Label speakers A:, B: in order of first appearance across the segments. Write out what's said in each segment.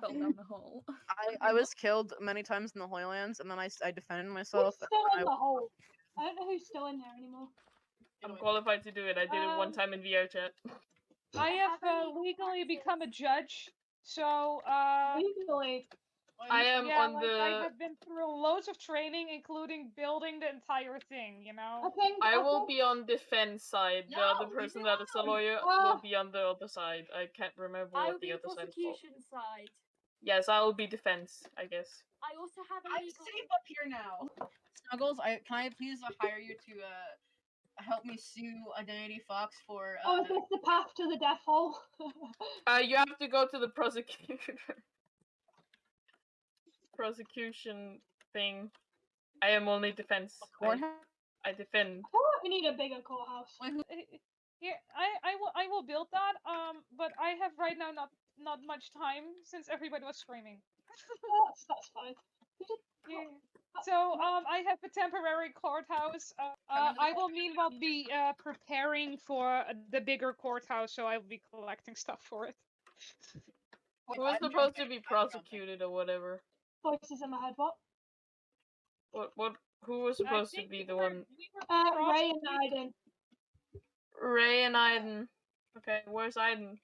A: fell down the hole.
B: I, I was killed many times in the Holy Lands, and then I, s- I defended myself.
C: Who's still
B: I-
C: in the hole? I don't know who's still in there anymore.
D: I'm qualified to do it. I did it one
C: Um,
D: time in VR chat.
E: I have uh, legally become a judge, so uh,
C: Legally,
D: I am
E: yeah,
D: on
E: like,
D: the.
E: I have been through loads of training, including building the entire thing. You
C: I
E: know,
C: think
D: I
C: I
D: will
C: think-
D: be on defense side. The
F: No,
D: other
F: you
D: person that is a
F: won't.
D: lawyer
C: Ah.
D: will be on the other side. I can't remember
F: I will
D: what
F: be
D: the other
F: the
D: side is called.
F: prosecution side.
D: Yes, I will be defense, I guess.
F: I also have a
G: I'm
F: legal.
G: safe up here now.
B: Snuggles, I, can I please uh, hire you to uh, help me sue Identity Fox for.
C: Oh,
B: Uh,
C: is this the path to the death hole?
D: Uh, you have to go to the prosecution. prosecution thing. I am only defense. I,
B: courthouse?
D: I defend.
C: I feel like we need a bigger courthouse.
B: Wait, who-
E: Uh, yeah, I, I will I will build that. Um, but I have right now not not much time since everybody was screaming.
C: That's, that's fine.
E: Yeah. So um, I have a temporary courthouse. Uh, uh, I will meanwhile be uh, preparing for uh, the bigger courthouse, so I'll be collecting stuff for it.
B: wait,
D: Who was
B: I'm
D: supposed to
B: jumping,
D: be
B: I'm jumping.
D: prosecuted or whatever?
C: Voices in my head. What?
D: What? What? Who was
E: I
D: supposed to
E: think
D: be
E: we
D: the
E: were-
D: one?
E: we were
C: Uh, Ray
E: prosecuted-
C: and Aiden.
D: Ray and Aiden. Okay, where's Aiden?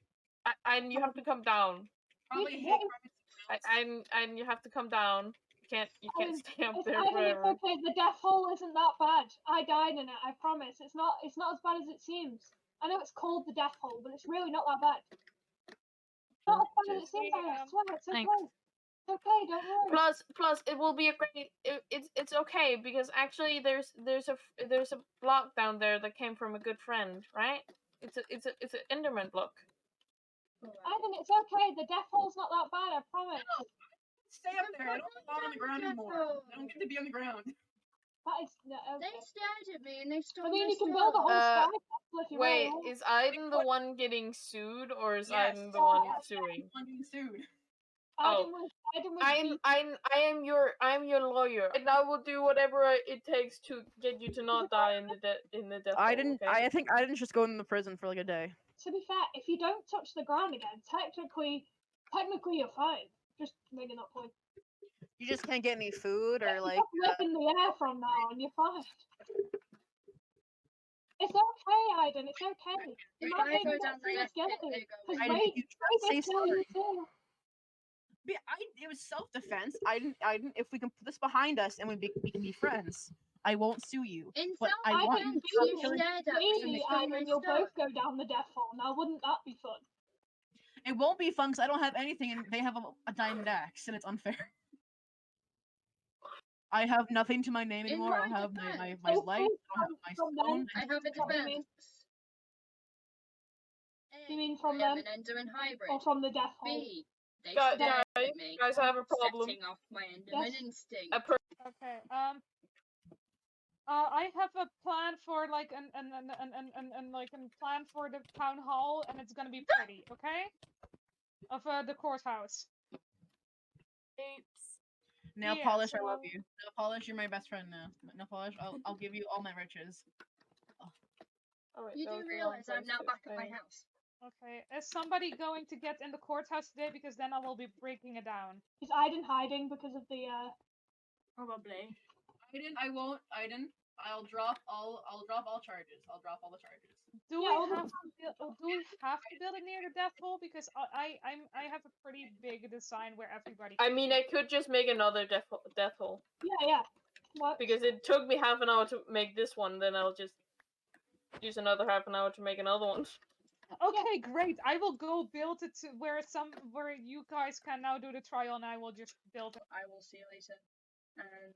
D: A- Aiden, you have to come down.
B: Probably
C: Wait,
B: hit
C: wait.
D: I, Aiden, Aiden, you have to come down. You can't. You can't
C: Aiden,
D: stay up
C: It's,
D: there
C: Aiden,
D: forever.
C: it's okay. The death hole isn't that bad. I died in it. I promise. It's not. It's not as bad as it seems. I know it's called the death hole, but it's really not that bad. Not as bad as it seems. I
E: Yeah.
C: swear. It's okay.
H: Thanks.
C: It's okay. Don't worry.
D: plus plus it will be a great it, it's it's okay because actually there's there's a f- there's a block down there that came from a good friend right it's a it's a it's an enderman block
C: Aiden, it's okay. The death hole's not that bad. I promise.
B: Stay up there. I don't belong on the ground anymore. I don't get to be on the ground.
C: That is. Uh,
F: They stared at me and they stole
C: I mean,
F: my
C: you can build a
F: stuff.
C: whole
D: Uh,
C: sky castle if you
D: wait
C: really want.
D: is aiden the one getting sued or is
B: Yes.
D: aiden the one
C: Yes.
D: suing
B: I'm being sued.
D: oh.
C: Aiden was. Aiden was.
D: i'm
C: beat.
D: i'm i am your i'm your lawyer and i will do whatever I- it takes to get you to not die in the de- in the death
B: I
D: hole,
B: didn't.
D: okay?
B: I think I didn't just go in the prison for like a day.
C: to be fair, if you don't touch the ground again, technically, technically you're fine. Just making that point.
B: You just can't get any food or
C: You
B: like. uh
C: just live in the air from now on. You're fine. It's okay, Aiden. It's okay. You
F: Wait,
C: might
F: can I
C: maybe
F: go
C: not
F: down
C: see
F: there?
C: us get
F: There
C: it,
F: you go,
C: 'cause
F: wait.
B: I didn't.
C: Ray-
B: You
C: Ray
B: tried to say
C: did tell you
B: sorry.
C: too.
B: Be- I, it was self defense. I didn't. I didn't. If we can put this behind us and we, be, we can be friends, I won't sue you.
F: In
B: But
F: some
B: I
C: I
B: want
C: can
F: sense,
B: you
C: do
B: to
F: you
C: kill
B: actually.
F: stared at me and
C: Maybe,
F: stole my
C: Aiden, you'll
F: stuff.
C: both go down the death hole. Now, wouldn't that be fun?
B: It won't be fun because I don't have anything, and they have a, a diamond axe, and it's unfair. I have nothing to my name
F: In
B: anymore. I don't
F: my
B: have my, my,
F: defense,
B: my
C: I
B: life.
C: think
B: I don't have
C: from
B: my stone.
C: them-
F: I have a
C: Come to me.
F: defense.
C: You mean
F: A,
C: from
F: I am
C: them?
F: an Enderman hybrid.
C: Or from the death hole?
F: B. They
D: Guy-
F: stared
D: guy-
F: at me.
D: guys i have a problem
F: Setting off my Enderman instinct.
D: a per-
E: Okay. Um. Uh, I have a plan for like an an an an an, an, an like a plan for the town hall, and it's gonna be pretty, okay? Of uh, the courthouse.
H: Oops.
B: Nail
E: Yeah,
B: polish, I love
E: so-
B: you. Nail polish, you're my best friend now. M- Nail polish, I'll, I'll give you all my riches.
D: Oh, wait,
F: You
D: that
F: do
D: was the wrong
F: realize I'm
D: place
F: now
D: to
F: back at my
D: explain it.
F: house.
E: Okay. Is somebody going to get in the courthouse today? Because then I will be breaking it down.
C: Is Aiden hiding because of the, uh,
H: Probably.
B: Iden, I won't. Iden, I'll drop all. I'll drop all charges. I'll drop all the charges.
E: Do
C: Yeah, all
E: we
C: the
E: have to build, oh, do we have to build it near the death hole? Because I I I'm, I have a pretty big design where everybody.
D: i
E: can
D: mean
E: fit.
D: i could just make another death, ho- death hole
C: yeah, yeah. What?
D: because it took me half an hour to make this one. Then I'll just use another half an hour to make another one.
E: Okay, great. I will go build it to where some where you guys can now do the trial, and I will just build it.
F: I will see you later. And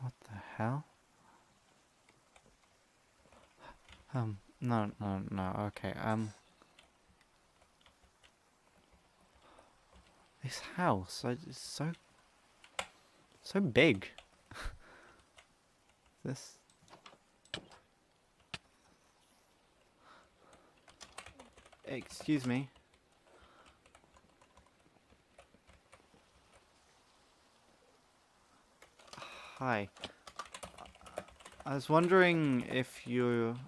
I: What the hell? Um, no, no, no, okay, um. This house I- it's so. so big. this. Excuse me. Hi. I was wondering if you